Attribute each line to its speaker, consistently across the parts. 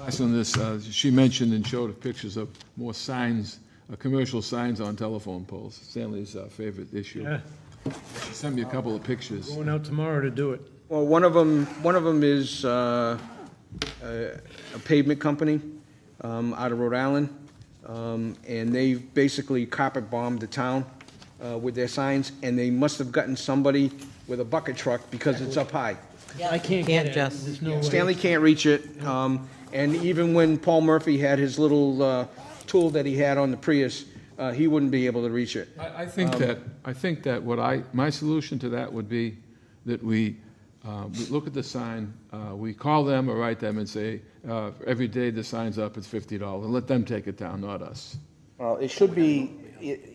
Speaker 1: Last on this, uh, she mentioned and showed pictures of more signs, uh, commercial signs on telephone poles, Stanley's uh, favorite issue.
Speaker 2: Yeah,
Speaker 1: She Sent me a couple of pictures.
Speaker 2: going out tomorrow to do it.
Speaker 3: Well, one of them, one of 'em is uh, a a pavement company um, out of Rhode Island, Um, and they basically carpet bombed the town uh, with their signs, and they must have gotten somebody with a bucket truck because it's up high.
Speaker 2: I can't
Speaker 4: Can't
Speaker 2: get at it,
Speaker 4: just-
Speaker 2: there's no way.
Speaker 3: Stanley can't reach it, um, and even when Paul Murphy had his little uh, tool that he had on the Prius, uh, he wouldn't be able to reach it.
Speaker 1: I, I think that, I think that what I, my solution to that would be that we, uh, we look at the sign, uh, we call them or write them and say, uh, every day the sign's up, it's fifty dollars, and let them take it down, not us.
Speaker 3: Well, it should be,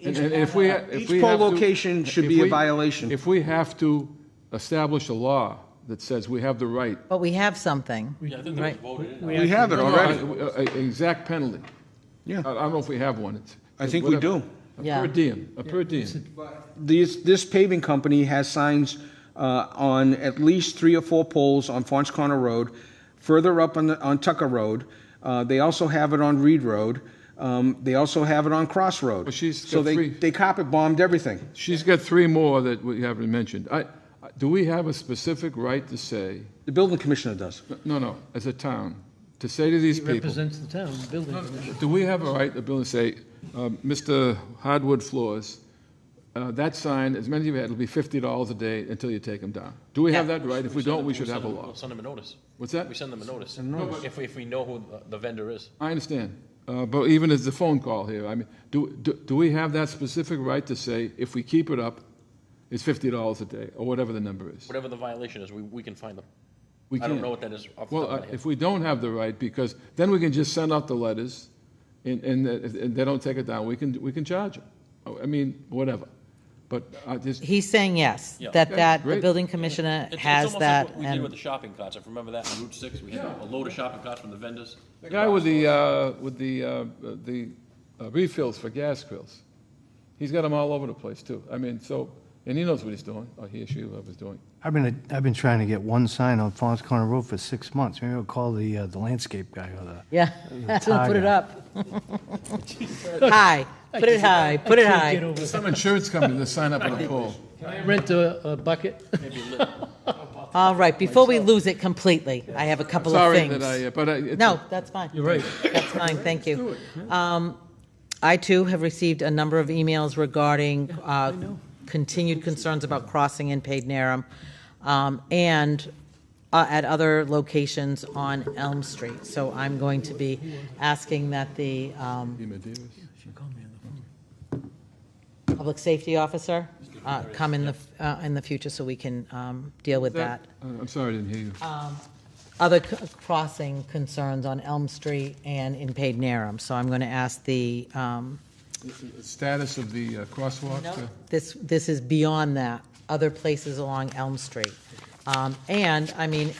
Speaker 1: And and if we, if we
Speaker 3: Each poll
Speaker 1: have to-
Speaker 3: location should
Speaker 1: if
Speaker 3: be a
Speaker 1: we-
Speaker 3: violation.
Speaker 1: If we have to establish a law that says we have the right.
Speaker 4: But we have something. Right.
Speaker 3: We have it already.
Speaker 1: Uh, uh, Exact penalty.
Speaker 3: Yeah.
Speaker 1: I I don't know if we have one. It's-
Speaker 3: I think we do.
Speaker 1: A
Speaker 4: Yeah.
Speaker 1: per diem, a per diem.
Speaker 3: This, this paving company has signs uh, on at least three or four poles on Fons Corner Road, further up on, the- on Tucker Road. Uh, They also have it on Reed Road. Um, They also have it on Cross Road.
Speaker 1: Well, she's
Speaker 3: So
Speaker 1: got
Speaker 3: they,
Speaker 1: three.
Speaker 3: they carpet bombed everything.
Speaker 1: She's got three more that we haven't mentioned. I, I- do we have a specific right to say,
Speaker 3: The building commissioner does.
Speaker 1: no, no, as a town, to say to these
Speaker 2: He
Speaker 1: people,
Speaker 2: represents the town, the building commission.
Speaker 1: do we have a right, the building, say, um, Mr. Hardwood Floors, uh, that sign, as many of you had, it'll be fifty dollars a day until you take them down. Do we have that right? If we don't, we should have a
Speaker 5: Send them-
Speaker 1: law.
Speaker 5: We'll send them a notice.
Speaker 1: What's that?
Speaker 5: We send them a notice. If, if we know who the- the vendor is.
Speaker 1: I understand, Uh, but even as the phone call here, I mean, do, do do we have that specific right to say, if we keep it up, it's $50 a day, or whatever the number is?
Speaker 5: Whatever the violation is, we, we can find them.
Speaker 1: We
Speaker 5: I don't
Speaker 1: can't.
Speaker 5: know what that is off the
Speaker 1: Well,
Speaker 5: top of my
Speaker 1: uh,
Speaker 5: head.
Speaker 1: if we don't have the right, because then we can just send out the letters, and, and if- if they don't take it down, we can, we can charge them. Oh, I mean, whatever, but I just,
Speaker 4: He's saying yes,
Speaker 5: Yeah.
Speaker 4: that,
Speaker 1: Okay,
Speaker 4: that, the
Speaker 1: great.
Speaker 4: building commissioner
Speaker 5: It's- it's
Speaker 4: has
Speaker 5: almost like
Speaker 4: that.
Speaker 5: what We did with
Speaker 4: and
Speaker 5: the shopping carts. If you remember that on Route Six, we had a load of shopping carts from the vendors.
Speaker 1: the guy with the, uh, with the, uh, the uh, refills for gas grills, he's got them all over the place, too. I mean, so, and he knows what he's doing, or he or she, whoever's doing.
Speaker 6: I've been, I've been trying to get one sign on Fons Corner Road for six months. Maybe I'll call the, uh, the landscape guy or the.
Speaker 4: Yeah, put it
Speaker 6: Tiger.
Speaker 4: up. High, put it high, put it
Speaker 2: I can't get
Speaker 4: high.
Speaker 2: over that.
Speaker 1: Some insurance company to sign up on a poll.
Speaker 2: Can I Rent a, a bucket.
Speaker 4: All right, before we lose it completely, I have a couple of
Speaker 1: Sorry
Speaker 4: things.
Speaker 1: that I, uh, but I. it's-
Speaker 4: No, that's fine.
Speaker 2: You're right.
Speaker 4: That's fine, thank you. Um, I too have received a number of emails regarding uh, continued concerns about crossing in Paid Narrum um, and uh, at other locations on Elm Street. So I'm going to be asking that the um, Public Safety Officer uh, come in the, uh, in the future so we can um, deal with that.
Speaker 1: Uh, I'm sorry, I didn't hear you.
Speaker 4: other c- crossing concerns on Elm Street and in Paid Narrum. So I'm going to ask the, um,
Speaker 1: Status of the uh, crosswalk? uh,
Speaker 4: this, this is beyond that, other places along Elm Street. Um, And, I mean,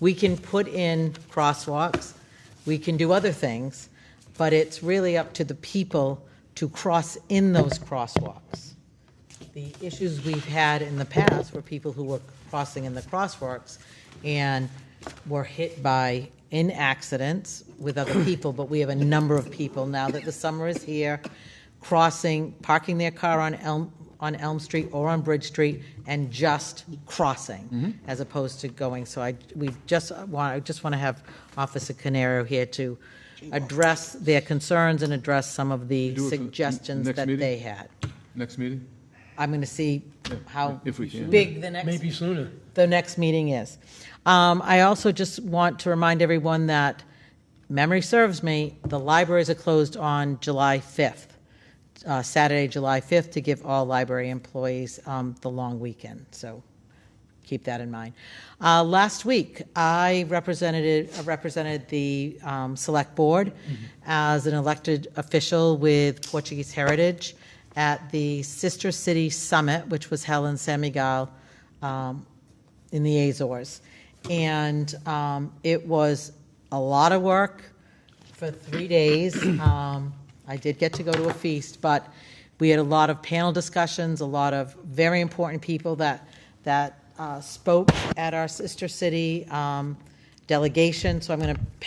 Speaker 4: we can put in crosswalks, we can do other things, but it's really up to the people to cross in those crosswalks. The issues we've had in the past were people who were crossing in the crosswalks and were hit by, in accidents with other people, but we have a number of people now that the summer is here, crossing, parking their car on Elm, on Elm Street or on Bridge Street and just
Speaker 1: Mm-hmm.
Speaker 4: crossing as opposed to going. So I, we just want, I just want to have Officer Canaro here to address their concerns and address some of the
Speaker 1: Do it for the n-
Speaker 4: suggestions
Speaker 1: next
Speaker 4: that
Speaker 1: meeting?
Speaker 4: they had.
Speaker 1: Next meeting?
Speaker 4: I'm going to see how
Speaker 1: If we can.
Speaker 4: big the next,
Speaker 2: Maybe sooner.
Speaker 4: the next meeting is. Um, I also just want to remind everyone that, memory serves me, the libraries are closed on July 5th, uh, Saturday, July 5th, to give all library employees um, the long weekend. So keep that in mind. Uh, Last week, I represented, uh, represented the um, Select Board as an elected official with Portuguese Heritage at the Sister City Summit, which was held in San Miguel um, in the Azores. And um, it was a lot of work for three days. Um, I did get to go to a feast, but we had a lot of panel discussions, a lot of very important people that, that uh, spoke at our sister city um, delegation. So I'm going to